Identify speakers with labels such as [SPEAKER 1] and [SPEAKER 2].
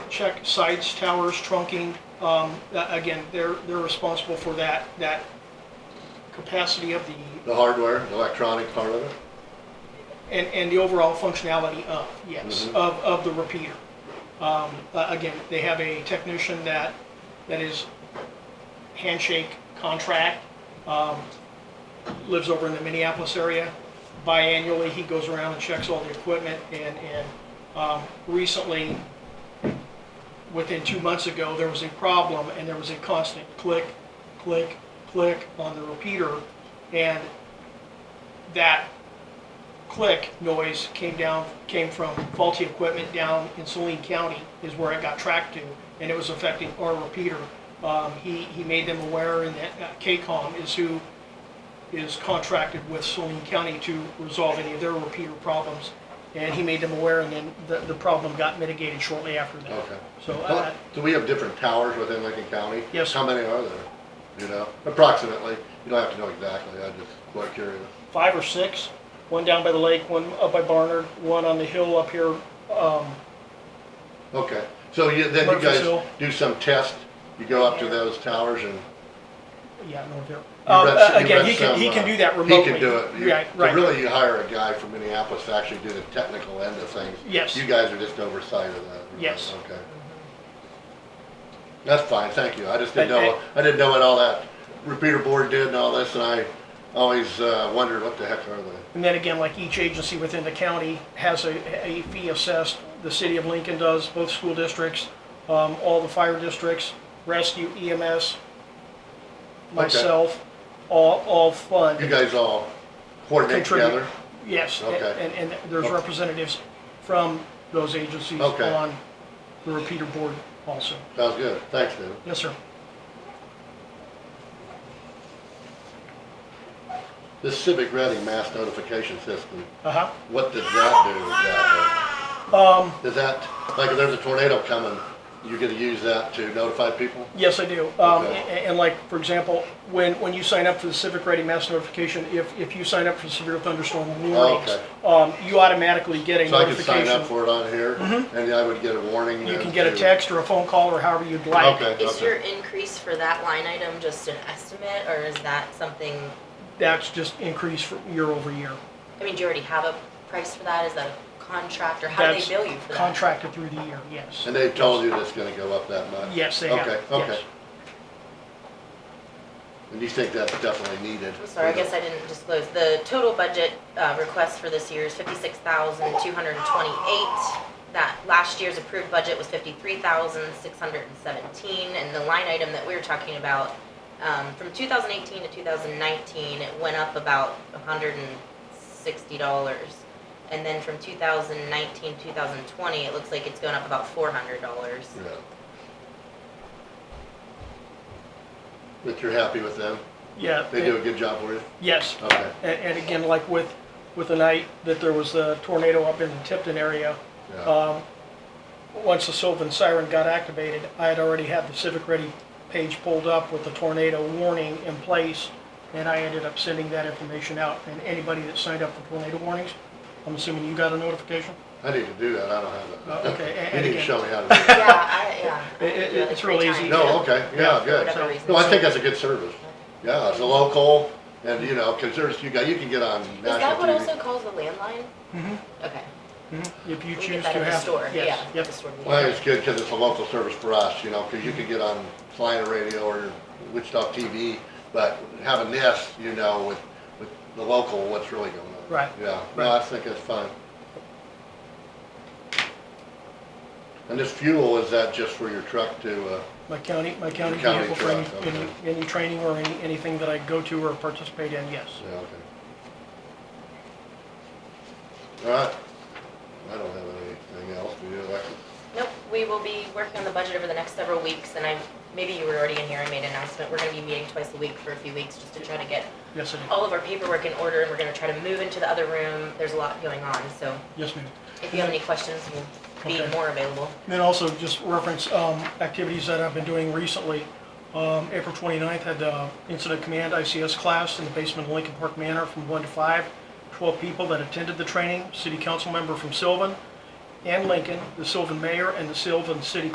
[SPEAKER 1] check sites, towers, trunking. Um, a- Again, they're, they're responsible for that, that capacity of the,
[SPEAKER 2] The hardware, the electronic part of it?
[SPEAKER 1] and, and the overall functionality of, yes,
[SPEAKER 2] Mhm.
[SPEAKER 1] of, of the repeater. Um, a- Again, they have a technician that, that is handshake contract, um, lives over in the Minneapolis area. Biannually, he goes around and checks all the equipment and, and um, recently, within two months ago, there was a problem and there was a constant click, click, click on the repeater. And that click noise came down, came from faulty equipment down in Saline County is where it got tracked to, and it was affecting our repeater. Um, he, he made them aware and that uh, KCOM is who is contracted with Saline County to resolve any of their repeater problems. And he made them aware and then the, the problem got mitigated shortly after that.
[SPEAKER 2] Okay.
[SPEAKER 1] So, uh,
[SPEAKER 2] Well, Do we have different towers within Lincoln County?
[SPEAKER 1] Yes.
[SPEAKER 2] How many are there? You know, approximately. You don't have to know exactly. I'm just quite curious.
[SPEAKER 1] five or six, one down by the lake, one up by Barnard, one on the hill up here, um,
[SPEAKER 2] Okay. So you, then you
[SPEAKER 1] Murphy's Hill.
[SPEAKER 2] guys do some test. You go up to those towers and
[SPEAKER 1] yeah, north here.
[SPEAKER 2] you
[SPEAKER 1] Um,
[SPEAKER 2] rent
[SPEAKER 1] uh,
[SPEAKER 2] s- you
[SPEAKER 1] Again,
[SPEAKER 2] rent
[SPEAKER 1] he can,
[SPEAKER 2] some,
[SPEAKER 1] he can
[SPEAKER 2] uh,
[SPEAKER 1] do that remotely.
[SPEAKER 2] He can do it. You-
[SPEAKER 1] Right,
[SPEAKER 2] so
[SPEAKER 1] right.
[SPEAKER 2] Really, you hire a guy from Minneapolis to actually do the technical end of things.
[SPEAKER 1] Yes.
[SPEAKER 2] You guys are just oversight of that. really.
[SPEAKER 1] Yes.
[SPEAKER 2] Okay. That's fine, thank you. I just didn't
[SPEAKER 1] But,
[SPEAKER 2] know, I didn't know what all that repeater board did and all this, and I always uh, wondered what the heck are they?
[SPEAKER 1] And then again, like each agency within the county has a, a fee assessed, the city of Lincoln does, both school districts, um, all the fire districts, rescue EMS, myself, all, all fund.
[SPEAKER 2] You guys all coordinate
[SPEAKER 1] Contribute.
[SPEAKER 2] together?
[SPEAKER 1] Yes, and,
[SPEAKER 2] Okay.
[SPEAKER 1] and and there's
[SPEAKER 2] Okay.
[SPEAKER 1] representatives from those agencies
[SPEAKER 2] Okay.
[SPEAKER 1] on the repeater board also.
[SPEAKER 2] Sounds good, thanks, David.
[SPEAKER 1] Yes, sir.
[SPEAKER 2] This civic ready mass notification system,
[SPEAKER 1] Uh-huh.
[SPEAKER 2] what does that do
[SPEAKER 1] Um,
[SPEAKER 2] exactly? Does that, like if there's a tornado coming, you're gonna use that to notify people?
[SPEAKER 1] Yes, I do. Um, a-
[SPEAKER 2] Okay.
[SPEAKER 1] a- and like, for example, when, when you sign up for the Civic Ready Mass Notification, if, if you sign up for severe thunderstorm warnings, um, you automatically get a
[SPEAKER 2] Oh, So I could sign
[SPEAKER 1] notification.
[SPEAKER 2] up
[SPEAKER 1] Mm-hmm.
[SPEAKER 2] for it on here, and I would get a warning?
[SPEAKER 1] You can
[SPEAKER 2] as
[SPEAKER 1] get a
[SPEAKER 2] to-
[SPEAKER 1] text or a phone call or however you'd like.
[SPEAKER 2] Okay,
[SPEAKER 3] Is
[SPEAKER 2] okay.
[SPEAKER 3] your increase for that line item just an estimate, or is that something,
[SPEAKER 1] That's just increased for year over year.
[SPEAKER 3] I mean, do you already have a price for that? Is that a contract, or how do they
[SPEAKER 1] That's
[SPEAKER 3] bill you for that?
[SPEAKER 1] Contracted through the year, yes.
[SPEAKER 2] And they've told you that's gonna go up that much?
[SPEAKER 1] Yes, they have,
[SPEAKER 2] Okay,
[SPEAKER 1] yes.
[SPEAKER 2] okay. And you think that's definitely needed?
[SPEAKER 3] I'm sorry, I guess I didn't disclose. The total budget uh, request for this year is fifty-six thousand, two hundred and twenty-eight. That last year's approved budget was fifty-three thousand, six hundred and seventeen, and the line item that we were talking about, um, from two thousand eighteen to two thousand nineteen, it went up about a hundred and sixty dollars. And then from 2019, 2020, it looks like it's gone up about $400.
[SPEAKER 2] Yeah. But you're happy with them?
[SPEAKER 1] Yeah.
[SPEAKER 2] They do a good job for you?
[SPEAKER 1] Yes.
[SPEAKER 2] Okay,
[SPEAKER 1] And, and again, like with, with the night that there was a tornado up in the Tipton area,
[SPEAKER 2] yeah,
[SPEAKER 1] Um, Once the Sylvan siren got activated, I had already had the Civic Ready page pulled up with the tornado warning in place, and I ended up sending that information out. And anybody that signed up for tornado warnings, I'm assuming you got a notification?
[SPEAKER 2] I need to do that, I don't have that.
[SPEAKER 1] Uh, okay, and-
[SPEAKER 2] You
[SPEAKER 1] and
[SPEAKER 2] need to
[SPEAKER 1] again-
[SPEAKER 2] show me how to do
[SPEAKER 3] Yeah,
[SPEAKER 2] it.
[SPEAKER 3] I, yeah. I
[SPEAKER 1] It- it-
[SPEAKER 3] do like
[SPEAKER 1] it's
[SPEAKER 3] three
[SPEAKER 1] real
[SPEAKER 3] times.
[SPEAKER 1] easy.
[SPEAKER 2] No, okay, yeah,
[SPEAKER 3] For
[SPEAKER 2] good.
[SPEAKER 3] whatever reason.
[SPEAKER 2] No, I think that's a good service. Yeah, it's a local, and you know, cause there's, you got, you can get on
[SPEAKER 3] Is that
[SPEAKER 2] national
[SPEAKER 3] what
[SPEAKER 2] TV.
[SPEAKER 3] also calls the landline?
[SPEAKER 1] Mm-hmm.
[SPEAKER 3] Okay.
[SPEAKER 1] If you
[SPEAKER 3] We
[SPEAKER 1] choose
[SPEAKER 3] get
[SPEAKER 1] to
[SPEAKER 3] that
[SPEAKER 1] have.
[SPEAKER 3] at the store, yeah.
[SPEAKER 1] yes,
[SPEAKER 3] at
[SPEAKER 1] yep.
[SPEAKER 3] the store we
[SPEAKER 2] Well, I think
[SPEAKER 3] get
[SPEAKER 2] it's good because it's a local service for us, you know, because you could get on Flyer Radio or Wichita TV, but having this, you know, with, with the local, what's really going on.
[SPEAKER 1] Right.
[SPEAKER 2] Yeah, no, I think it's fun. And this fuel, is that just for your truck to, uh,
[SPEAKER 1] My county, my county
[SPEAKER 2] county
[SPEAKER 1] vehicle for any,
[SPEAKER 2] truck,
[SPEAKER 1] any, any training or any, anything that I go to or participate in, yes.
[SPEAKER 2] yeah, okay. All right. I don't have anything else, do you, Alexis?
[SPEAKER 3] it. Nope, we will be working on the budget over the next several weeks, and I, maybe you were already in here, I made an announcement, we're gonna be meeting twice a week for a few weeks, just to try to get
[SPEAKER 1] Yes, I do.
[SPEAKER 3] all of our paperwork in order, and we're gonna try to move into the other room, there's a lot going on, so
[SPEAKER 1] Yes, ma'am.
[SPEAKER 3] if you have any questions, we'll be
[SPEAKER 1] Mm-hmm. Okay.
[SPEAKER 3] more available.
[SPEAKER 1] Then also just reference um, activities that I've been doing recently. Um, April 29th had the Incident Command ICS class in the basement of Lincoln Park Manor from 1 to 5. 12 people that attended the training, city council member from Sylvan and Lincoln, the Sylvan mayor, and the Sylvan city